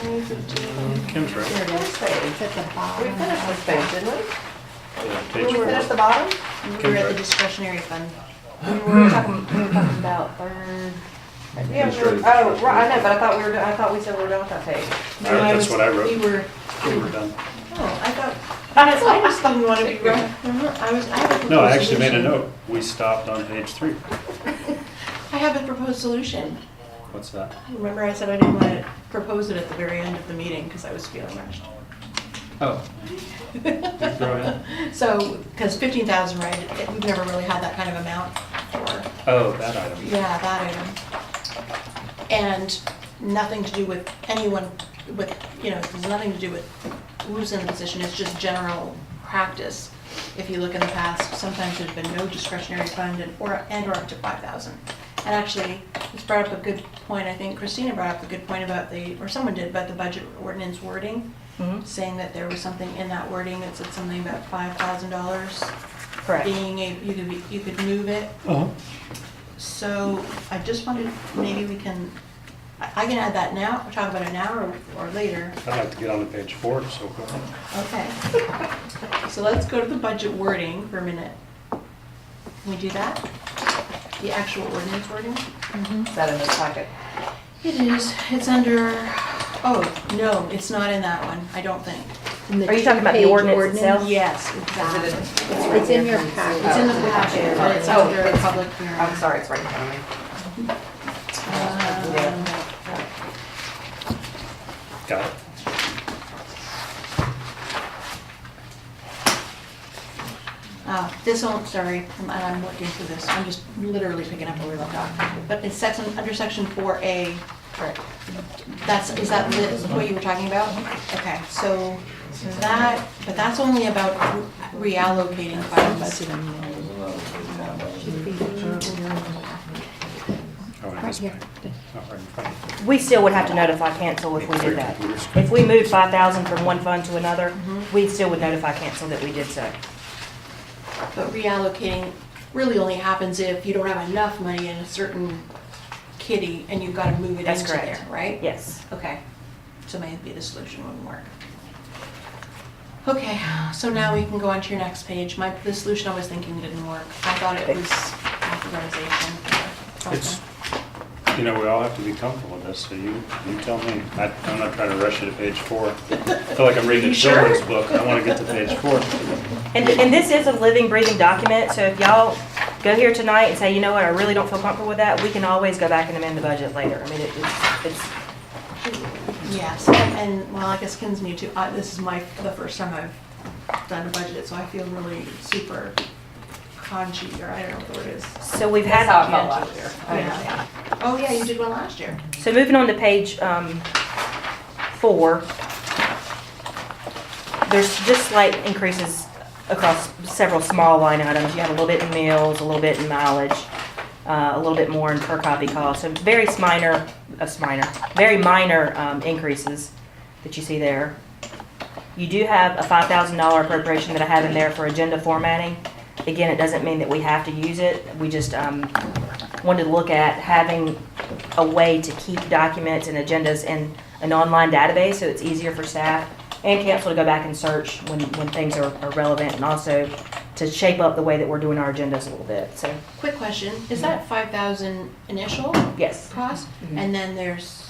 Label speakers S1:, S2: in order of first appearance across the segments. S1: Kim's right.
S2: Here's
S3: It's at the
S2: We
S3: bottom.
S2: finished this page, didn't we?
S1: Yeah,
S2: Did
S1: page
S2: we
S1: four.
S2: finish the bottom?
S3: We were at the discretionary fund. We were talking, we were talking about third.
S2: Yeah, we were- oh, right, I know, but I thought we were, I thought we said we were done with that page.
S1: All right, that's what I wrote.
S3: You were,
S1: Okay, we're done.
S2: Oh, I thought, I just thought you wanted to go.
S3: uh-huh, I was, I have a proposed solution.
S1: No, I actually made a note. We stopped on page three.
S3: I have a proposed solution.
S1: What's that?
S3: Remember I said I didn't want to propose it at the very end of the meeting because I was feeling rushed.
S1: Oh. Go ahead.
S3: So, because fifteen thousand, right, we've never really had that kind of amount for,
S1: Oh, that item.
S3: yeah, that item. And nothing to do with anyone, with, you know, it has nothing to do with who's in the position, it's just general practice. If you look in the past, sometimes there's been no discretionary fund and, or, and or up to five thousand. And actually, it's brought up a good point, I think Christina brought up a good point about the, or someone did, about the budget ordinance wording saying that there was something in that wording that said something about five thousand dollars
S2: Correct.
S3: being a, you could be, you could move it.
S1: Uh-huh.
S3: So I just wondered, maybe we can, I I can add that now, or talk about it now or, or later.
S1: I'd like to get on to page four, so go ahead.
S3: Okay. So let's go to the budget wording for a minute. Can we do that? The actual ordinance wording?
S2: Is that in this packet?
S3: It is, it's under, oh, no, it's not in that one, I don't think.
S2: Are you talking about the ordinance itself?
S3: Yes, exactly.
S4: It's in your packet.
S3: It's in the packet, but it's
S2: Oh,
S3: under
S2: it's-
S3: public hearing.
S2: I'm sorry, it's right in front of me.
S3: Um,
S1: Got it.
S3: Uh, This one, sorry, I'm- and I'm looking through this, I'm just literally picking up where we left off. But it's section, under section 4A,
S2: Correct.
S3: that's, is that the- what you were talking about? Okay, so that, but that's only about reallocating funds.
S1: Oh, and this page. Oh, right in front of
S4: We still would have to notify cancel if we did that. If we moved five thousand from one fund to another,
S3: Mm-hmm.
S4: we still would notify cancel that we did so.
S3: But reallocating really only happens if you don't have enough money in a certain kitty and you've got to move it
S4: That's
S3: into
S4: correct.
S3: there, right?
S4: Yes.
S3: Okay, so maybe the solution wouldn't work. Okay, so now we can go on to your next page. My, the solution I was thinking didn't work. I thought it was authorization.
S1: It's, you know, we all have to be comfortable with this, so you, you tell me. I, I'm not trying to rush you to page four. I feel like I'm reading
S3: You
S1: a
S3: sure?
S1: children's book, and I want to get to page four.
S4: And, and this is a living, breathing document, so if y'all go here tonight and say, you know what, I really don't feel comfortable with that, we can always go back and amend the budget later. I mean, it- it's, it's,
S3: Yes, and, and, well, I guess Ken's new too. I, this is my, the first time I've done a budget, so I feel really super conchy, or I don't know what the word is.
S4: so we've
S2: That's
S4: had.
S2: how it felt last year. I understand.
S3: Yeah. Oh, yeah, you did one last year.
S4: So moving on to page um, four, there's just slight increases across several small line items. You have a little bit in meals, a little bit in mileage, uh, a little bit more in per copy cost. So very minor, uh, minor, very minor um, increases that you see there. You do have a five thousand dollar appropriation that I have in there for agenda formatting. Again, it doesn't mean that we have to use it. We just um, wanted to look at having a way to keep documents and agendas in an online database, so it's easier for staff and council to go back and search when, when things are are relevant, and also to shape up the way that we're doing our agendas a little bit, so,
S3: Quick question, is that five thousand initial?
S4: yes.
S3: cost, and then there's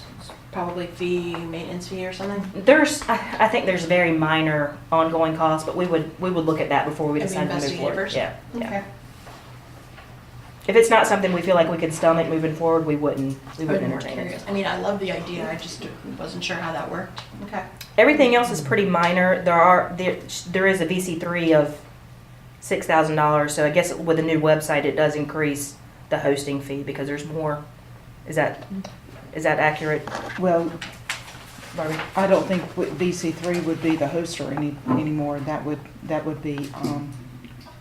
S3: probably fee, maintenance fee or something.
S4: There's, I, I think there's very minor ongoing costs, but we would, we would look at that before we
S3: Have you
S4: decide to move
S3: investigated
S4: forward.
S3: first?
S4: Yeah, yeah. If it's not something we feel like we could stomach moving forward, we wouldn't, we
S3: I
S4: wouldn't
S3: was more
S4: entertain it.
S3: curious. I mean, I love the idea, I just wasn't sure how that worked. Okay.
S4: Everything else is pretty minor. There are there, there is a VC three of six thousand dollars. So I guess with a new website, it does increase the hosting fee because there's more. Is that is that accurate?
S5: Well,
S4: Barbie?
S5: I don't think VC three would be the hoster any, anymore. That would, that would be, um,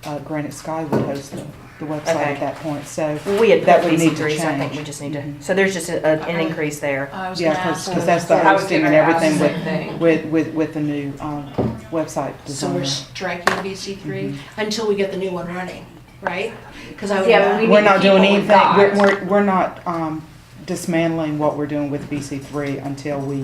S5: uh, Granite Sky would host the, the website
S4: Okay.
S5: at that point, so.
S4: Well, we had
S5: That
S4: put
S5: would need
S4: VC
S5: to
S4: three, so I think we
S5: change.
S4: just need to.
S5: Mhm.
S4: So there's just a, a, an
S3: Okay.
S4: increase there.
S3: Uh, I was gonna
S5: Yeah,
S3: ask.
S5: cause, 'cause that's the
S2: I was
S5: hosting and
S2: gonna ask
S5: everything
S2: the same
S5: with, with, with, with the new, um, website
S3: So we're
S5: designer.
S3: striking VC three until we get the new one running, right? Cause I would.
S2: Yeah, but we
S5: We're
S2: need
S5: not
S2: to keep
S5: doing
S2: what we've
S5: anything, we're,
S2: got.
S5: we're, we're not, um, dismantling what we're doing with VC three until we